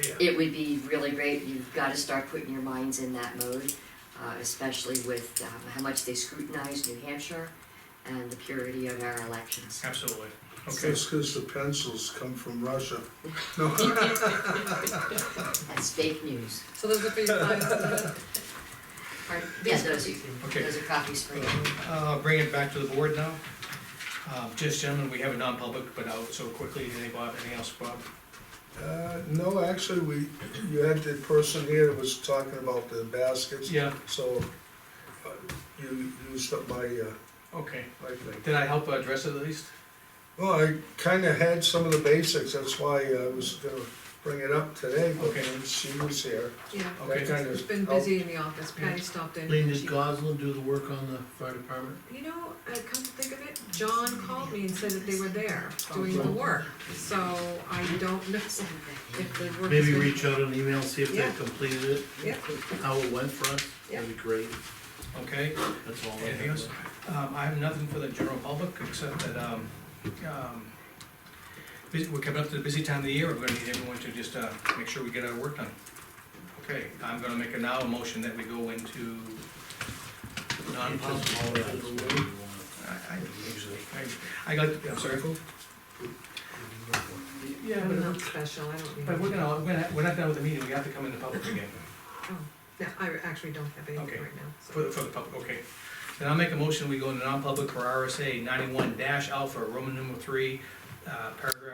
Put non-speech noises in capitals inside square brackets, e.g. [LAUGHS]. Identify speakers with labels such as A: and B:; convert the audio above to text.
A: it would be really great, you've gotta start putting your minds in that mode, uh, especially with, um, how much they scrutinize New Hampshire and the purity of our elections.
B: Absolutely. Okay,
C: Just because the pencils come from Russia.
A: That's fake news.
D: So those
E: [LAUGHS]
D: are for your files.
A: Yeah, those are,
B: okay.
A: those are copies for you.
B: Uh, bring it back to the board now. Uh, just gentlemen, we have a non-public, but out so quickly, anything, Bob, anything else, Bob?
C: Uh, no, actually, we, you had the person here that was talking about the baskets,
B: Yeah,
C: so uh, you used up my, uh,
B: okay.
C: my thing.
B: Did I help address it at least?
C: Well, I kinda had some of the basics, that's why I was gonna bring it up today, but
B: Okay.
C: when she was here.
D: Yeah,
B: Okay.
C: That kind
D: it's
C: of.
D: been busy in the office, Patty stopped in.
E: Lean, does
D: She-
E: Goslin do the work on the fire department?
D: You know, I come to think of it, John called me and said that they were there doing the work, so I don't know if the work. has
E: [LAUGHS] Maybe
D: been-
E: reach out an email, see if they
D: Yeah.
E: completed it,
D: Yeah,
E: how it went for us,
D: Yeah.
E: that'd be great,
B: Okay.
E: that's all. I
B: Anything
E: have.
B: else? Um, I have nothing for the general public, except that, um, um, bus- we're coming up to the busy time of the year, we're gonna need everyone to just, uh, make sure we get our work done. Okay, I'm gonna make a now a motion that we go into non-public.
E: Just all that is what we want.
B: I, I usually, I, I got, I'm sorry, yeah,
D: I'm
B: but,
D: not special, I don't need.
B: but we're gonna, we're gonna, we're not done with the meeting, we have to come into public again,
D: No, I actually don't have
B: Okay.
D: anything right now,
B: for,
D: so.
B: for the public, okay. Then I'll make a motion, we go into non-public for RSA ninety-one dash alpha, Roman numeral three, uh, paragraph